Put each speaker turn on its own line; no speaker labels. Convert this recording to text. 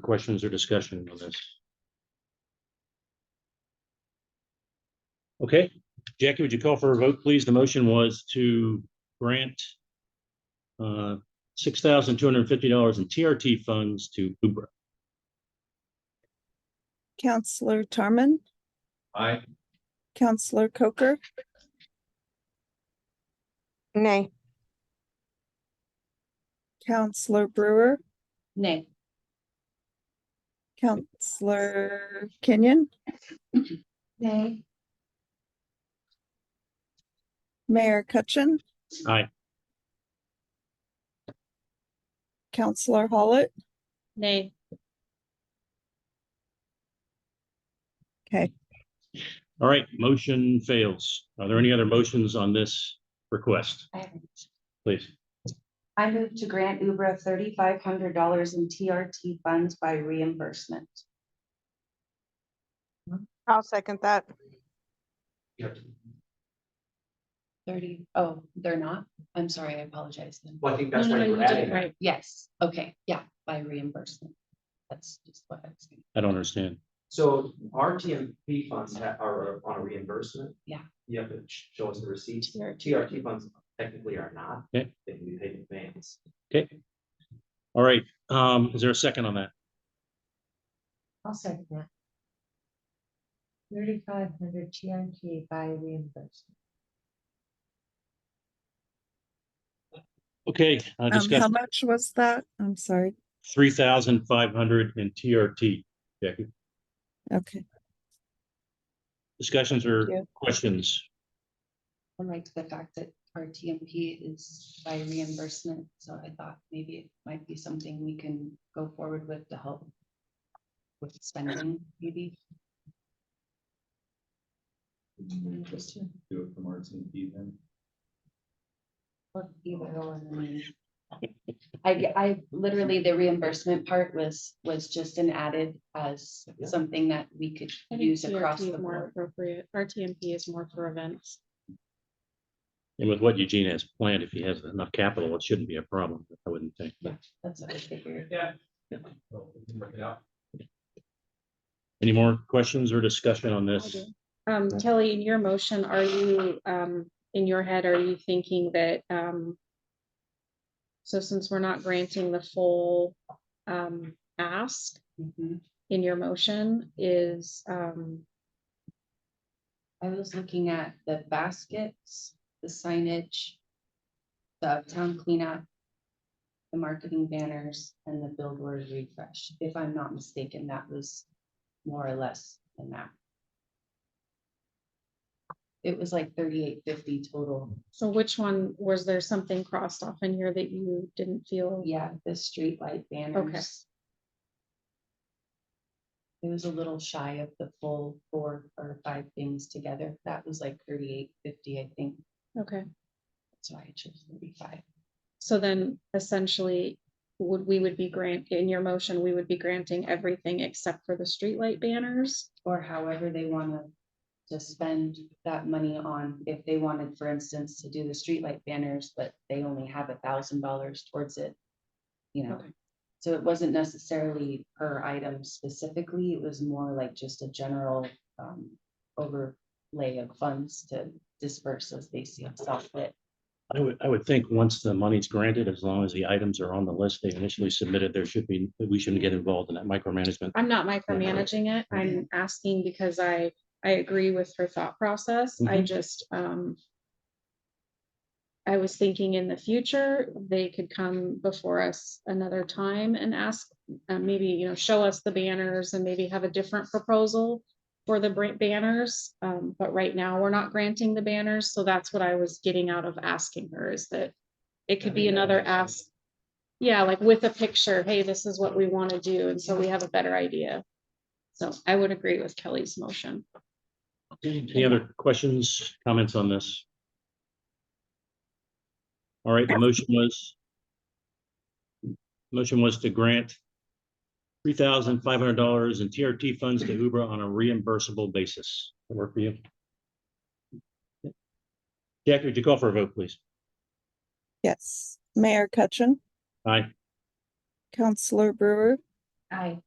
questions or discussion on this? Okay, Jackie, would you call for a vote, please? The motion was to grant uh, six thousand two hundred and fifty dollars in TRT funds to Kubra.
Counselor Tarman,
Aye.
Counselor Coker,
Nay.
Counselor Brewer,
Nay.
Counselor Kenyon,
Nay.
Mayor Cutchin.
Aye.
Counselor Hollett.
Nay.
Okay,
All right, motion fails. Are there any other motions on this request, please?
I move to grant Ubra thirty-five hundred dollars in TRT funds by reimbursement.
I'll second that.
Thirty, oh, they're not? I'm sorry, I apologize then.
Well, I think
No,
that's
no, no,
why we're
you did
adding
it
that.
right. Yes, okay, yeah, by reimbursement. That's just what I was thinking.
I don't understand.
So our TMP funds ha- are uh, on a reimbursement.
Yeah.
You have to sh- show us the receipt.
TRT.
TRT funds technically are not.
Okay.
They can be paid in advance.
Okay. All right, um, is there a second on that?
I'll second that. Thirty-five hundred TNT by reimbursement.
Okay, uh,
um, how
discuss
much was that? I'm sorry.
three thousand five hundred in TRT. Jackie,
Okay,
discussions or
Thank you.
questions?
I liked the fact that our TMP is by reimbursement, so I thought maybe it might be something we can go forward with to help with spending, maybe.
Just do it from our team even.
Well, you will, and then- I, ge- I literally, the reimbursement part was, was just an added as
Yeah.
something that we could
I think
use across
TRT
the
is more
board.
Appropriate, RTMP is more for events.
And with what Eugene has planned, if he has enough capital, it shouldn't be a problem, I wouldn't think.
That's what I figured.
Yeah. Well, Oh, we can work it out.
Any more questions or discussion on
I
this?
do. Um,
Right.
Kelly, in your motion, are you, um, in your head, are you thinking that, um, so since we're not granting the full, um, ask
Mhm.
in your motion is, um,
I was looking at the baskets, the signage, the town cleanup, the marketing banners and the billboard refresh. If I'm not mistaken, that was more or less than that. It was like thirty-eight fifty total.
so which one, was there something crossed off in here that you didn't feel?
Yeah, the streetlight banners. It was a little shy of the full four or five things together. That was like thirty-eight fifty, I think.
Okay,
That's why I chose thirty-five.
so then essentially, would, we would be grant, in your motion, we would be granting everything except for the streetlight banners?
Or however they wanna to spend that money on, if they wanted, for instance, to do the streetlight banners, but they only have a thousand dollars towards it. You know,
Okay.
so it wasn't necessarily per item specifically, it was more like just a general um overlay of funds to disperse as they see themselves fit.
I would, I would think once the money's granted, as long as the items are on the list they initially submitted, there should be, we shouldn't get involved in that micromanagement.
I'm not micromanaging it. I'm asking because I, I agree with her thought process. I
Mhm.
just, um, I was thinking in the future, they could come before us another time and ask, uh, maybe, you know, show us the banners and maybe have a different proposal for the br- banners. Um, but right now, we're not granting the banners. So that's what I was getting out of asking her is that it could be another ask. Yeah, like with a picture, hey, this is what we want to do. And so we have a better idea. So I would agree with Kelly's motion.
Any other questions, comments on this? All right, the motion was motion was to grant three thousand five hundred dollars in TRT funds to Uber on a reimbursable basis. That Work for you? Jackie, would you call for a vote, please?
yes. Mayor Cutchin,
Aye.
Counselor Brewer,
Aye.